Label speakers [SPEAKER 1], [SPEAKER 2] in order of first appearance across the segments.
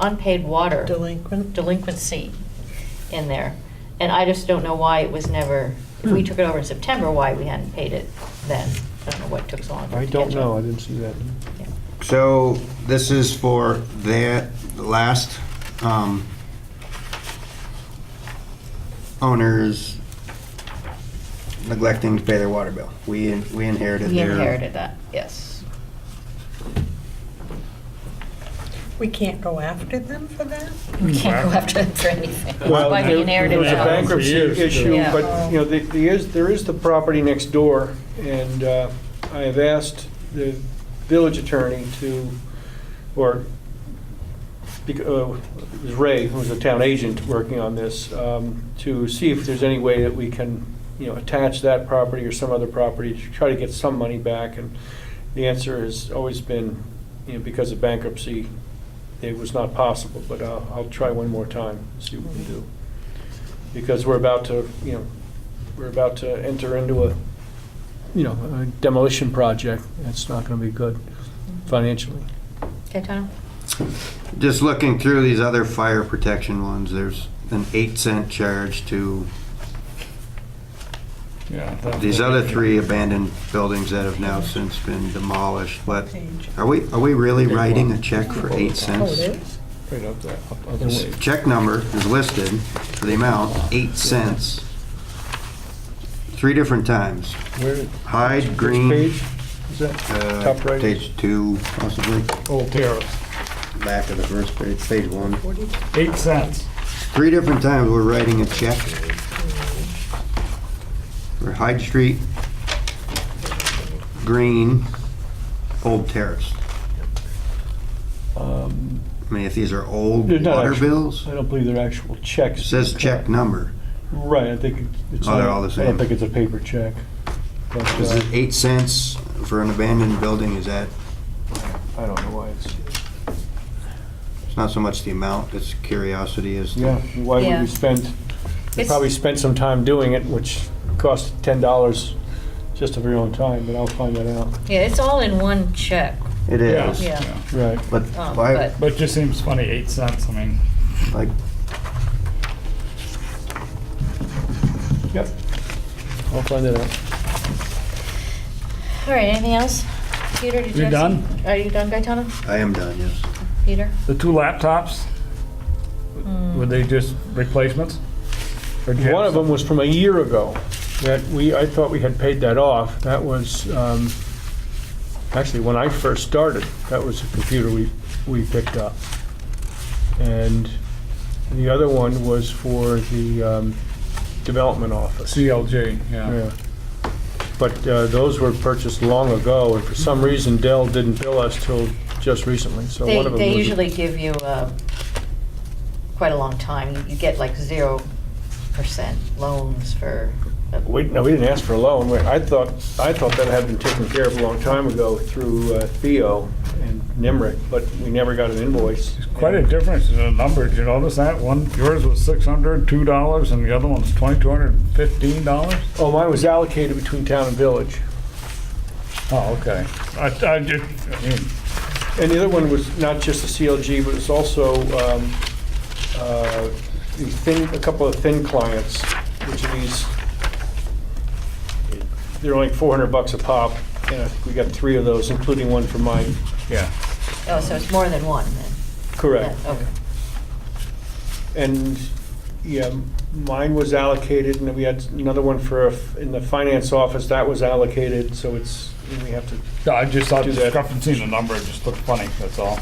[SPEAKER 1] unpaid water
[SPEAKER 2] Delinquent?
[SPEAKER 1] delinquency in there. And I just don't know why it was never, if we took it over in September, why we hadn't paid it then. I don't know what took so long. for it
[SPEAKER 3] I
[SPEAKER 1] to
[SPEAKER 3] don't
[SPEAKER 1] catch
[SPEAKER 3] know, I
[SPEAKER 1] up.
[SPEAKER 3] didn't see that.
[SPEAKER 1] Yeah.
[SPEAKER 4] So this is for the the last um, owners neglecting to pay their water bill. We in- we inherited
[SPEAKER 1] We
[SPEAKER 4] their...
[SPEAKER 1] inherited that, yes.
[SPEAKER 2] We can't go after them for that?
[SPEAKER 1] We can't go after them for anything.
[SPEAKER 3] Well,
[SPEAKER 1] Why we
[SPEAKER 3] there-
[SPEAKER 1] inherited
[SPEAKER 3] There was a
[SPEAKER 1] that.
[SPEAKER 3] bankruptcy
[SPEAKER 5] For years,
[SPEAKER 3] issue,
[SPEAKER 1] yeah.
[SPEAKER 3] but, you know, the- the is- there is the property next door, and uh, I have asked the village attorney to, or, bec- uh, it was Ray, who's the town agent working on this, um, to see if there's any way that we can, you know, attach that property or some other property to try to get some money back, and the answer has always been, you know, because of bankruptcy, it was not possible, but I'll, I'll try one more time, see what we can do. Because we're about to, you know, we're about to enter into a, you know, a demolition project. It's not gonna be good financially.
[SPEAKER 1] Okay, Tom?
[SPEAKER 4] Just looking through these other fire protection ones, there's an eight cent charge to
[SPEAKER 5] Yeah.
[SPEAKER 4] these other three abandoned buildings that have now since been demolished, but
[SPEAKER 2] Page.
[SPEAKER 4] are we, are we really writing a check for eight
[SPEAKER 2] Oh,
[SPEAKER 4] cents?
[SPEAKER 2] it is?
[SPEAKER 5] Right up there. up- up
[SPEAKER 4] This
[SPEAKER 5] there.
[SPEAKER 4] Check number is listed for the amount, eight cents. Three different times.
[SPEAKER 3] Where,
[SPEAKER 4] Hyde, Green,
[SPEAKER 3] page? Is that,
[SPEAKER 4] uh,
[SPEAKER 3] Top right.
[SPEAKER 4] page two possibly,
[SPEAKER 3] oh, there.
[SPEAKER 4] back of the first page, page one.
[SPEAKER 5] Eight cents.
[SPEAKER 4] Three different times we're writing a check for Hyde Street, Green, Old Terrace.
[SPEAKER 3] Um,
[SPEAKER 4] I mean, if these are old
[SPEAKER 3] They're not
[SPEAKER 4] water
[SPEAKER 3] actual.
[SPEAKER 4] bills,
[SPEAKER 3] I don't believe they're actual checks.
[SPEAKER 4] it says check number.
[SPEAKER 3] Right, I think it's.
[SPEAKER 4] Oh, they're
[SPEAKER 3] not-
[SPEAKER 4] all the
[SPEAKER 3] I
[SPEAKER 4] same.
[SPEAKER 3] don't think it's a paper check. But,
[SPEAKER 4] Is
[SPEAKER 3] uh,
[SPEAKER 4] it eight cents for an abandoned building? Is that,
[SPEAKER 3] I don't know why it's,
[SPEAKER 4] it's not so much the amount, it's curiosity as to.
[SPEAKER 3] yeah, why would
[SPEAKER 1] Yeah.
[SPEAKER 3] we spend, we
[SPEAKER 1] It's-
[SPEAKER 3] probably spent some time doing it, which cost ten dollars just of your own time, but I'll find that out.
[SPEAKER 1] Yeah, it's all in one check.
[SPEAKER 4] It is.
[SPEAKER 1] Yeah.
[SPEAKER 3] Right.
[SPEAKER 4] But
[SPEAKER 1] Um,
[SPEAKER 4] why,
[SPEAKER 5] But it just seems funny, eight cents, I mean,
[SPEAKER 4] like,
[SPEAKER 3] Yep. I'll find it out.
[SPEAKER 1] All right, anything else? Peter, did you
[SPEAKER 5] You're
[SPEAKER 1] have some-
[SPEAKER 5] done?
[SPEAKER 1] Are you done, Gaetano?
[SPEAKER 4] I am done, yes.
[SPEAKER 1] Peter?
[SPEAKER 5] the two laptops, were they just replacements? Or do you have
[SPEAKER 3] One of
[SPEAKER 5] some-
[SPEAKER 3] them was from a year ago, that we, I thought we had paid that off. That was, um, actually, when I first started, that was a computer we, we picked up. And the other one was for the um, development office.
[SPEAKER 5] uh, CLG,
[SPEAKER 3] Yeah. But uh, those were purchased long ago, and for some reason Dell didn't bill us till just recently, so
[SPEAKER 1] They,
[SPEAKER 3] one of them was...
[SPEAKER 1] they usually give you uh, quite a long time. You- You get like zero percent loans for. uh,
[SPEAKER 3] We, no, we didn't ask for a loan. We- I thought, I thought that had been taken care of a long time ago through uh, Theo and Nimrick, but we never got an invoice.
[SPEAKER 5] Quite a difference in the numbers, you notice that? One, yours was six hundred, two dollars, and the other one's twenty-two hundred and fifteen dollars?
[SPEAKER 3] Oh, mine was allocated between town and village.
[SPEAKER 5] Oh, okay. I, I just, I mean,
[SPEAKER 3] And the other one was not just the CLG, but it's also um, uh, the thin, a couple of thin clients, which are these, they're only 400 bucks a pop, and I think we got three of those, including one for mine.
[SPEAKER 5] yeah.
[SPEAKER 1] Oh, so it's more than one then?
[SPEAKER 3] Correct.
[SPEAKER 1] Yeah, Okay.
[SPEAKER 3] And, yeah, mine was allocated, and then we had another one for, a f- in the finance office, that was allocated, so it's, we have to,
[SPEAKER 5] No, I just thought
[SPEAKER 3] Do that.
[SPEAKER 5] discrepancy in the number, it just looked funny, that's all.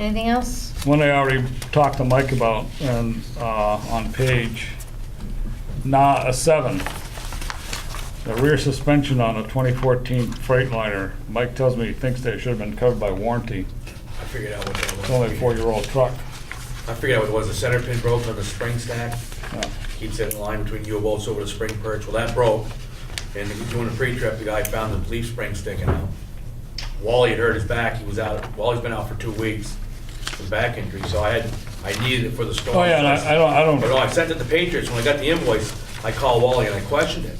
[SPEAKER 1] Anything else?
[SPEAKER 5] One I already talked to Mike about, and, uh, on page, nah, a seven. The rear suspension on a 2014 Freightliner, Mike tells me he thinks they should have been covered by warranty.
[SPEAKER 6] I figured out what that was.
[SPEAKER 5] It's only a four-year-old truck.
[SPEAKER 6] I figured out what it was. The center pin broke on the spring stack.
[SPEAKER 5] Yeah.
[SPEAKER 6] Keeps it in line between U bolts over the spring perch. Well, that broke. And doing a pre-trip, the guy found the leaf spring sticking out. Wally had hurt his back. He was out, Wally's been out for two weeks with back injury. So I had, I needed it for the storm.
[SPEAKER 5] Oh, yeah, and I I don't, I don't.
[SPEAKER 6] But no, I sent it to Patriots, when I got the invoice, I called Wally and I questioned it,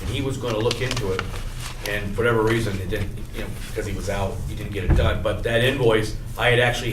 [SPEAKER 6] and he was gonna look into it, and for whatever reason, it didn't, you know, because he was out, he didn't get it done, but that invoice, I had actually